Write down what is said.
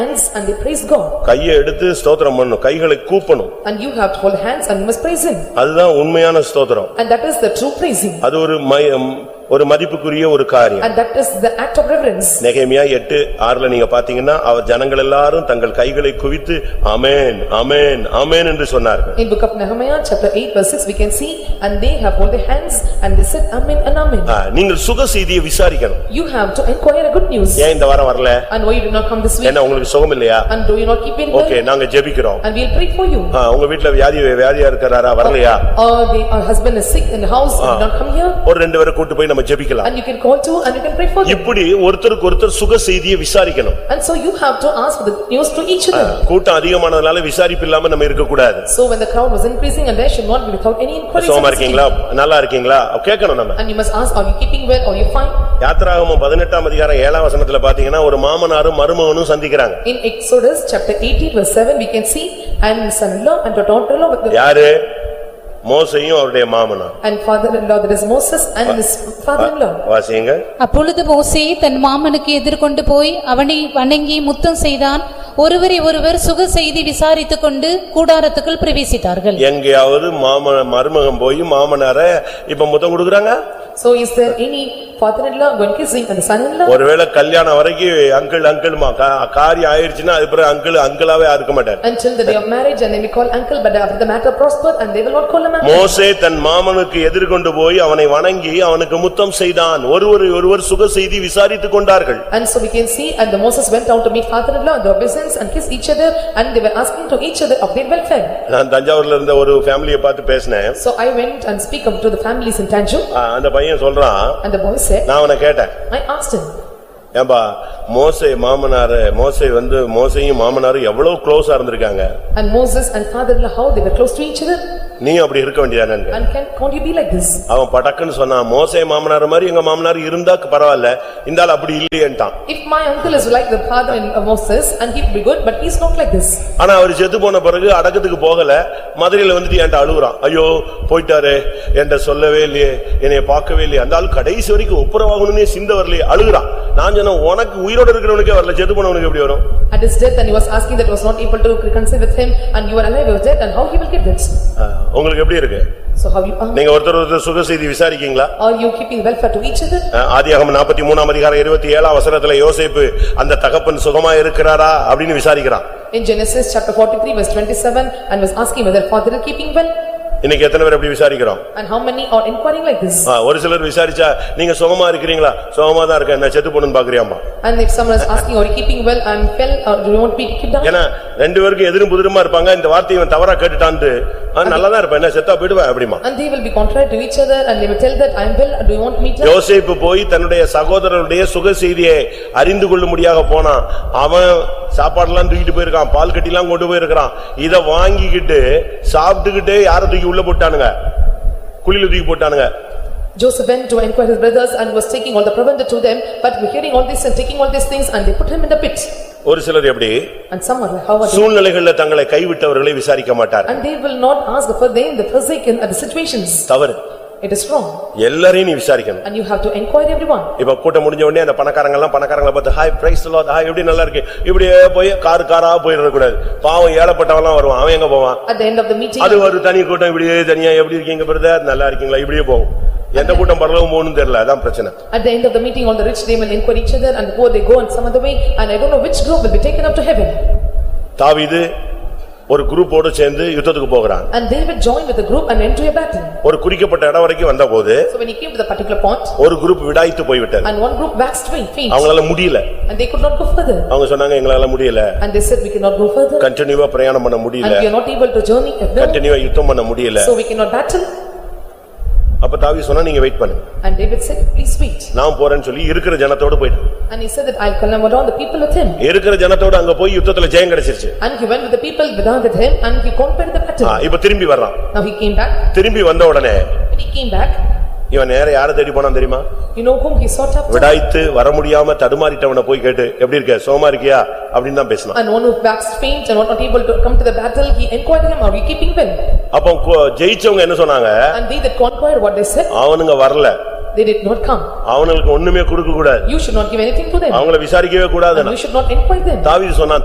hands and they praise God. கையை எடுத்து ஸ்தோத்திரம் பண்ணும் கைகளை கூப்பணும் And you have to hold hands and you must praise him. அதுதான் உண்மையான ஸ்தோத்திரம் And that is the true praising. அது ஒரு மயம் ஒரு மதிப்புக்குரிய ஒரு காரியம் And that is the act of reverence. நெகேமியா எட்டு ஆறுல நீங்க பாத்தீங்கன்னா அவர் ஜனங்கள் எல்லாரும் தங்கள் கைகளை குவித்து அமேன் அமேன் அமேன் என்று சொன்னார்கள் In book of Nehemiah, chapter 8 verse 6, we can see, "And they have hold their hands and they said Amen and Amen." ஆ, நீங்கள் சுக செய்தியை விசாரிக்கணும் You have to inquire a good news. ஏன் இந்த வாரம் வரல And why you do not come this week? என்ன உங்களுக்கு சுகம் இல்லையா And do you not keep in okay well? நாங்க ஜெபிக்கிறோம் And we'll pray for you. ஆ, உங்க வீட்டுல வியாதி வியாதியா இருக்கிறாரா வரலையா Or the our husband is sick in the house and did not come here? ஒரு ரெண்டு பேரை கூட்டு போய் நம்ம ஜெபிக்கலாம் And you can call too and you can pray for them. இப்படி ஒருத்தருக்கு ஒருத்தர் சுக செய்தியை விசாரிக்கணும் And so you have to ask for the news to each other. கூட்டம் அதிகமானதுனால விசாரிப்பு இல்லாம நம்ம இருக்கக்கூடாது So when the crowd was increasing and there should not be without any inquiries. சுகமா இருக்கீங்களா நல்லா இருக்கீங்களா கேட்கணும் நம்ம And you must ask, are you keeping well, are you fine? யாத்ராகமம் பதினெட்டாம் அதிகாரம் ஏழாம் வசனத்துல பாத்தீங்கன்னா ஒரு மாமனாரும் மருமகனும் சந்திக்கிறாங்க In Exodus chapter eighteen verse seven, we can see, and son-in-law and the daughter-in-law with the, யாரு மோசையும் அவருடைய மாமனார் and father-in-law, that is Moses and his father-in-law. வாசிங்க அப்பொழுது மோசே தன் மாமனுக்கு எதிர்கொண்டு போய் அவனை வணங்கி முத்தம் செய்தான் ஒருவரை ஒருவர் சுக செய்தி விசாரித்துக் கொண்டு கூடாரத்துக்குள் பிரவேசித்தார்கள் எங்கேயாவது மாம மருமகன் போய் மாமனார இப்ப முத்தம் கொடுக்குறாங்க So is there any father-in-law going kissing and son-in-law? ஒருவேளை கல்யாணம் வரைக்கும் அங்கிள் அங்கிள்மா காரியம் ஆயிருச்சுன்னா அது பிறகு அங்கிள் அங்கிளாவே இருக்க மாட்டார் Until the day of marriage and they may call uncle, but after the matter prospered and they will not call him uncle. மோசே தன் மாமனுக்கு எதிர்கொண்டு போய் அவனை வணங்கி அவனுக்கு முத்தம் செய்தான் ஒருவர் ஒருவர் சுக செய்தி விசாரித்துக் கொண்டார்கள் And so we can see, and the Moses went down to meet father-in-law and their business and kissed each other and they were asking to each other of their welfare. நான் தஞ்சாவூர்ல இருந்த ஒரு ஃபேமிலியை பார்த்து பேசினேன் So I went and speak up to the families in Tanjung ஆ, அந்த பையன் சொல்றான் And the boy said, நான் அவனை கேட்டேன் I asked him, ஏம்பா மோசே மாமனாரு மோசே வந்து மோசையும் மாமனாரும் எவ்வளவு க்ளோஸா இருந்திருக்காங்க and Moses and father-in-law, how they were close to each other, நீ அப்படி இருக்க வேண்டியதானே and can, can't you be like this? அவன் படக்குன்னு சொன்னான் மோசே மாமனார் மாதிரி எங்க மாமனார் இருந்தா பரவாயில்ல இந்த ஆள் அப்படி இல்லையேன்ட்டான் If my uncle is like the father in uh, Moses, and he'd be good, but he's not like this. ஆனா அவர் செத்து போன பிறகு அடக்கத்துக்கு போகல மதுரையில வந்துட்டு என்கிட்ட அழுகுறான் ஐயோ போயிட்டாரு என்கிட்ட சொல்லவே இல்லையே என்னைய பார்க்கவே இல்லையே அந்த ஆள் கடைசி வரைக்கும் ஒப்புரவாகணும்னே சிந்த வரலையே அழுகுறான் நான் சொன்னேன் உனக்கு உயிரோட இருக்கிறவனுக்கே வரல செத்து போனவனுக்கு எப்படி வரும் At his death, and he was asking that was not able to reconcile with him, and you are alive, you are dead, and how he will get that? அஹ், உங்களுக்கு எப்படி இருக்கு So how you are? நீங்க ஒருத்தர் ஒருத்தர் சுக செய்தி விசாரிக்கீங்களா Are you keeping welfare to each other? ஆதியாகம நாற்பத்தி மூணாம் அதிகாரம் இருபத்தி ஏழாம் வசனத்துல யோசேப்பு அந்த தகப்பன் சுகமா இருக்கிறாரா அப்படின்னு விசாரிக்கிறான் In Genesis chapter forty-three verse twenty-seven, and was asking whether father is keeping well, இன்னைக்கு எத்தனை பேர் அப்படி விசாரிக்கிறோம் and how many are inquiring like this? ஆ, ஒரு சிலர் விசாரிச்சா நீங்க சுகமா இருக்கிறீங்களா சுகமா தான் இருக்கேன் நான் செத்து போனேன்னு பாக்குறியாமா And if someone is asking, are you keeping well, I'm well, or do you want me to keep down? ஏன்னா ரெண்டு பேருக்கும் எதிரும் புதிருமா இருப்பாங்க இந்த வார்த்தையை இவன் தவறா கேட்டுட்டான்ட்டு நல்லாதான் இருப்பேன் என்ன செத்தா போயிடுவேன் அப்படிமா And they will be contrary to each other and they will tell that I am well, do you want me to? யோசேப்பு போய் தன்னுடைய சகோதரனுடைய சுக செய்தியை அறிந்து கொள்ளும்படியாக போனான் அவன் சாப்பாடுலாம் தூக்கிட்டு போயிருக்கான் பால் கட்டிலாம் கொண்டு போயிருக்கான் இத வாங்கிக்கிட்டு சாப்பிட்டுக்கிட்டே யாரை தூக்கி உள்ள போட்டானுங்க குழியில தூக்கி போட்டானுங்க Joseph went to inquire his brothers and was taking all the provender to them, but were hearing all this and taking all these things and they put him in the pit. ஒரு சிலர் எப்படி And some are like, how are they? சூழ்நிலைகள்ல தங்களை கைவிட்டவர்களை விசாரிக்க மாட்டார் And they will not ask for them the forsaken at the situations. தவறு It is wrong எல்லாரையும் நீ விசாரிக்கணும் and you have to inquire everyone. இப்ப கூட்டம் முடிஞ்ச உடனே அந்த பணக்காரங்க எல்லாம் பணக்காரங்களை பார்த்து ஹாய் பிரைஸ் லாட் ஹாய் எப்படி நல்லா இருக்கு இப்படியே போய் கார் காரா போயிடற கூடாது பாவம் ஏழப்பட்டவன் எல்லாம் வருவான் அவன் எங்க போவான் At the end of the meeting, அது ஒரு தனி கூட்டம் இப்படியே தனியா எப்படி இருக்கீங்க பிரதர் நல்லா இருக்கீங்களா இப்படியே போகும் எந்த கூட்டம் பரலவும் போகணும்னு தெரியல அதான் பிரச்சனை at the end of the meeting, all the rich they will inquire each other and the poor they go and some other way and I don't know which group will be taken up to heaven. தாவீது ஒரு குரூப்போட சேர்ந்து யுத்தத்துக்கு போகிறான் And they will join with the group and enter a battle. ஒரு குறிக்கப்பட்ட இடம் வரைக்கும் வந்தபோது So when he came to the particular point ஒரு குரூப் விடாய்த்து போய்விட்டது and one group waxed faint அவங்களால முடியல and they could not go further. அவங்க சொன்னாங்க எங்களால முடியல And they said, we cannot go further, கண்டினியூவா பிரயாணம் பண்ண முடியல and we are not able to journey further, கண்டினியூவா யுத்தம் பண்ண முடியல so we cannot battle. அப்ப தாவீது சொன்னா நீங்க வெயிட் பண்ணுங்க And David said, please wait. நான் போறேன்னு சொல்லி இருக்கிற ஜனத்தோட போயிட்டான் And he said that I'll come along the people with him. இருக்கிற ஜனத்தோட அங்க போய் யுத்தத்துல ஜெயம் கிடைச்சிருச்சு And he went with the people without with him, and he conquered the ah, battle. இப்ப திரும்பி வர்றான் Now he came back, திரும்பி வந்த உடனே when he came back, இவன் நேர யாரை தேடி போனான் தெரியுமா you know whom he sought after? விடாய்த்து வர முடியாம தடுமாறிட்டவனை போய் கேட்டு எப்படி இருக்க சோமா இருக்கியா அப்படின்னு தான் பேசினான் And one who waxed faint and was not able to come to the battle, he inquired him, are we keeping well? அப்போ கு- ஜெயிச்சவங்க என்ன சொன்னாங்க And they that conquered, what they said, அவனுங்க வரல they did not come. அவனுக்கு ஒண்ணுமே கொடுக்க கூடாது You should not give anything to them, அவங்கள விசாரிக்கவே கூடாது and you should not inquire them. தாவீது சொன்னான்